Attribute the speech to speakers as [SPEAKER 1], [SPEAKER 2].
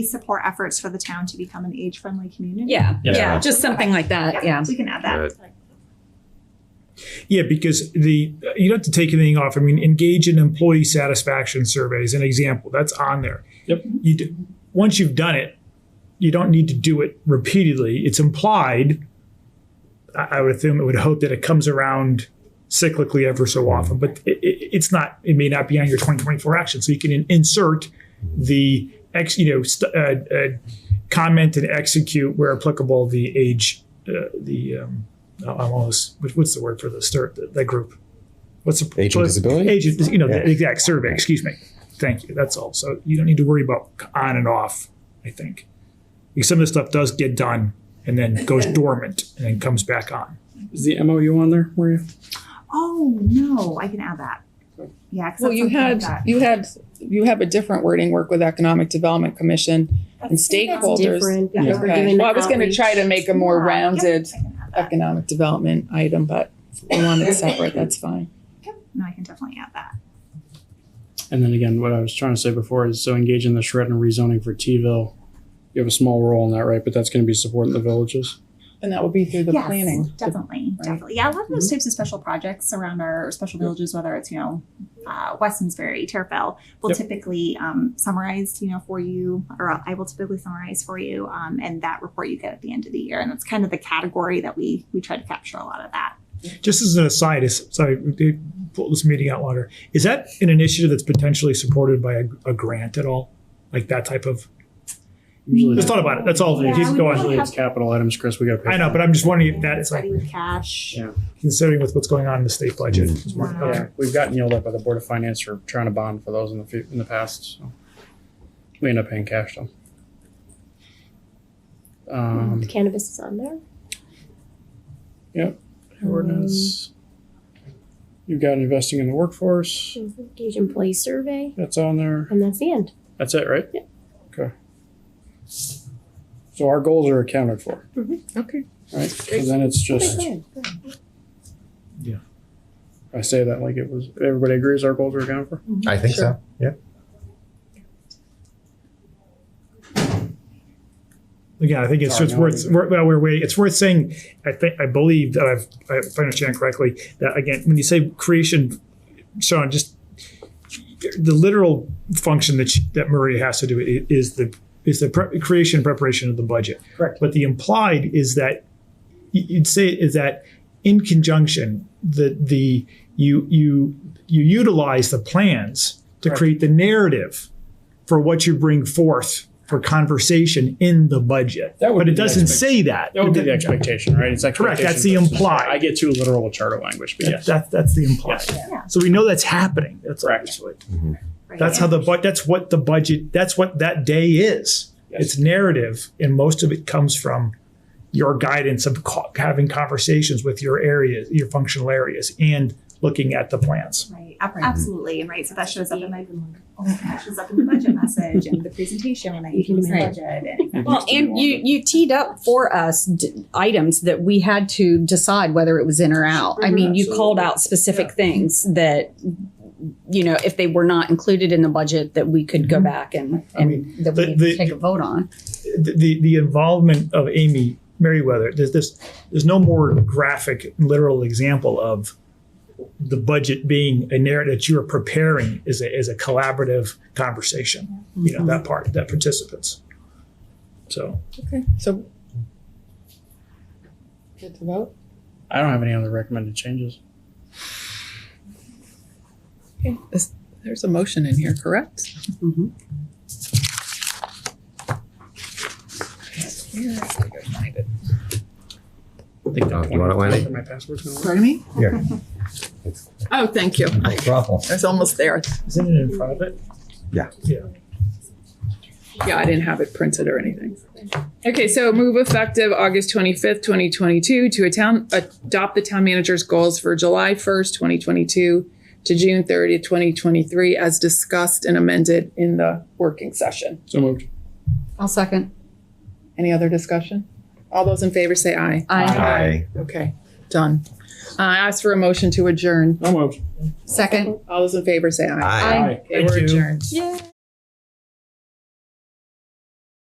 [SPEAKER 1] support efforts for the town to become an age-friendly community.
[SPEAKER 2] Yeah,
[SPEAKER 3] Yeah.
[SPEAKER 2] yeah, just something like that, yeah.
[SPEAKER 1] We can add that.
[SPEAKER 4] Good.
[SPEAKER 5] Yeah, because the you don't have to take anything off. I mean, engage in employee satisfaction surveys. An example that's on there.
[SPEAKER 3] Yep.
[SPEAKER 5] You do, once you've done it, you don't need to do it repeatedly. It's implied. I, I would assume it would hope that it comes around cyclically ever so often, but it, it, it's not. It may not be on your 2024 action, so you can in- insert the ex. You know, st- uh, uh, comment and execute where applicable the age uh, the. Um, no, I'm almost what- what's the word for the stir the, the group? What's the
[SPEAKER 6] Age and disability?
[SPEAKER 5] Age, you know,
[SPEAKER 6] Yeah.
[SPEAKER 5] the exact survey. Excuse me. Thank you. That's all. So you don't need to worry about on and off. I think because some of this stuff does get done and then goes dormant and then comes back on.
[SPEAKER 3] Is the MOU on there, Maria?
[SPEAKER 1] Oh, no, I can add that. Yeah. 'cause
[SPEAKER 7] Well,
[SPEAKER 1] that's
[SPEAKER 7] you
[SPEAKER 1] something
[SPEAKER 7] had,
[SPEAKER 1] that-
[SPEAKER 7] you had, you have a different wording, work with Economic Development Commission and stakeholders.
[SPEAKER 8] Different because we're
[SPEAKER 7] Okay,
[SPEAKER 8] doing
[SPEAKER 7] well, I was gonna
[SPEAKER 8] outreach.
[SPEAKER 7] try to make a more
[SPEAKER 1] Yeah, yep,
[SPEAKER 7] rounded
[SPEAKER 1] I can add that.
[SPEAKER 7] economic development item, but if we want it separate, that's fine.
[SPEAKER 1] No, I can definitely add that.
[SPEAKER 3] And then again, what I was trying to say before is so engage in the shred and rezoning for T-ville. You have a small role in that, right? But that's going to be supporting the villages.
[SPEAKER 7] And that would be through the
[SPEAKER 1] yes,
[SPEAKER 7] planning.
[SPEAKER 1] Definitely,
[SPEAKER 7] right? Mm-hmm.
[SPEAKER 1] definitely. Yeah, a lot of those types of special projects around our special villages, whether it's, you know, uh, Westonsbury, Terrafell, will
[SPEAKER 3] Yep.
[SPEAKER 1] typically um, summarize, you know, for you, or I will typically summarize for you, um, and that report you get at the end of the year. And that's kind of the category that we we try to capture a lot of that.
[SPEAKER 5] Just as an aside, is sorry, we did pull this meeting out longer. Is that an initiative that's potentially supported by a, a grant at all? Like that type of.
[SPEAKER 3] Usually,
[SPEAKER 5] Just thought about it. That's all.
[SPEAKER 1] Yeah,
[SPEAKER 5] Keep
[SPEAKER 1] we probably
[SPEAKER 5] going.
[SPEAKER 3] usually it's capital items, Chris. We got to pay.
[SPEAKER 5] I know, but I'm just wondering if that's
[SPEAKER 1] It's
[SPEAKER 5] like
[SPEAKER 1] ready with cash.
[SPEAKER 3] Yeah.
[SPEAKER 5] considering with what's going on in the state budget. Just wondering-
[SPEAKER 1] Wow.
[SPEAKER 3] yeah, we've gotten yelled at by the board of finance for trying to bond for those in the fu- in the past. So we end up paying cash though. Um,
[SPEAKER 8] Cannabis is on there.
[SPEAKER 3] ordinance. You've got investing in the workforce.
[SPEAKER 8] Engage employee survey,
[SPEAKER 3] That's on there.
[SPEAKER 8] and that's the end.
[SPEAKER 3] That's it, right? Yeah. Okay. So our goals are accounted for,
[SPEAKER 7] Okay.
[SPEAKER 3] right? So then it's just, I say that like it was, everybody agrees our goals are accounted for?
[SPEAKER 6] I think
[SPEAKER 3] Sure.
[SPEAKER 6] so. Yeah.
[SPEAKER 5] Again, I think it's
[SPEAKER 3] Sorry,
[SPEAKER 5] just
[SPEAKER 3] no,
[SPEAKER 5] worth,
[SPEAKER 3] you-
[SPEAKER 5] wor- well, we're waiting. It's worth saying, I think, I believe that I've, I- if I understand correctly, that again, when you say creation, Sean, just the literal function that, she- that Maria has to do i- is the, is the pre- creation and preparation of the budget.
[SPEAKER 3] Correct.
[SPEAKER 5] But the implied is that y- you'd say is that in conjunction, the, the, you, you, you utilize the plans to
[SPEAKER 3] Correct.
[SPEAKER 5] create the narrative for what you bring forth for conversation in the budget.
[SPEAKER 3] That would
[SPEAKER 5] but
[SPEAKER 3] be
[SPEAKER 5] it
[SPEAKER 3] the
[SPEAKER 5] doesn't
[SPEAKER 3] expect-
[SPEAKER 5] say that.
[SPEAKER 3] That would be the
[SPEAKER 5] That-
[SPEAKER 3] expectation, right? It's
[SPEAKER 5] Correct, that's the
[SPEAKER 3] expectation versus-
[SPEAKER 5] implied.
[SPEAKER 3] I get too literal with charter language, but yes.
[SPEAKER 5] that- that's the implied.
[SPEAKER 1] Yeah.
[SPEAKER 5] So we know that's happening. That's
[SPEAKER 3] Correct.
[SPEAKER 5] obviously-
[SPEAKER 1] Right.
[SPEAKER 5] That's how the but that's what the budget. That's what that day is.
[SPEAKER 3] Yes.
[SPEAKER 5] It's narrative, and most of it comes from your guidance of co- having conversations with your areas, your functional areas, and looking at the plans.
[SPEAKER 1] Right, ab- absolutely, and right, so that shows up in my, oh, that shows up in the budget message and the presentation when I
[SPEAKER 8] You can
[SPEAKER 1] use the
[SPEAKER 2] make-
[SPEAKER 1] budget and.
[SPEAKER 3] It
[SPEAKER 2] Well,
[SPEAKER 3] used to be
[SPEAKER 2] and
[SPEAKER 3] longer.
[SPEAKER 2] you, you teed up for us d- items that we had to decide whether it was in or out. I mean, you called out specific things that, you know, if they were not included in the budget, that we could go back and,
[SPEAKER 5] Mm-hmm. I
[SPEAKER 2] and that
[SPEAKER 5] the-
[SPEAKER 2] we
[SPEAKER 5] the-
[SPEAKER 2] take a vote on.
[SPEAKER 5] the- the the involvement of Amy Merriweather, there's this there's no more graphic literal example of the budget being a narrative that you're preparing is a is a collaborative conversation. You know, that part, that participants. So
[SPEAKER 7] Okay, so. Get to vote?
[SPEAKER 3] I don't have any other recommended changes.
[SPEAKER 7] Okay, this- There's a motion in here, correct?
[SPEAKER 2] Mhm.
[SPEAKER 7] Here, I gotta go find it.
[SPEAKER 3] I think
[SPEAKER 6] Oh,
[SPEAKER 3] that
[SPEAKER 6] you want it, Lenny?
[SPEAKER 3] My password's gonna work.
[SPEAKER 7] Pardon me?
[SPEAKER 6] Here.
[SPEAKER 7] Oh, thank you.
[SPEAKER 6] No
[SPEAKER 7] I
[SPEAKER 6] problem.
[SPEAKER 7] was almost there.
[SPEAKER 5] isn't it in private?
[SPEAKER 6] Yeah.
[SPEAKER 5] Yeah.
[SPEAKER 7] Yeah, I didn't have it printed or anything. Okay, so move effective August twenty-fifth, twenty twenty-two to a town, adopt the town manager's goals for July first, twenty twenty-two to June thirtieth, twenty twenty-three, as discussed and amended in the working session.
[SPEAKER 3] So moved.
[SPEAKER 2] I'll second.
[SPEAKER 7] Any other discussion? All those in favor say aye.
[SPEAKER 2] I
[SPEAKER 6] Aye.
[SPEAKER 7] Okay, done. Uh, I ask for a motion to adjourn.
[SPEAKER 3] So moved.
[SPEAKER 2] second.
[SPEAKER 7] All those in favor say aye.
[SPEAKER 6] Aye.
[SPEAKER 7] Okay, we're
[SPEAKER 5] Thank you.
[SPEAKER 7] adjourned.
[SPEAKER 2] Yay.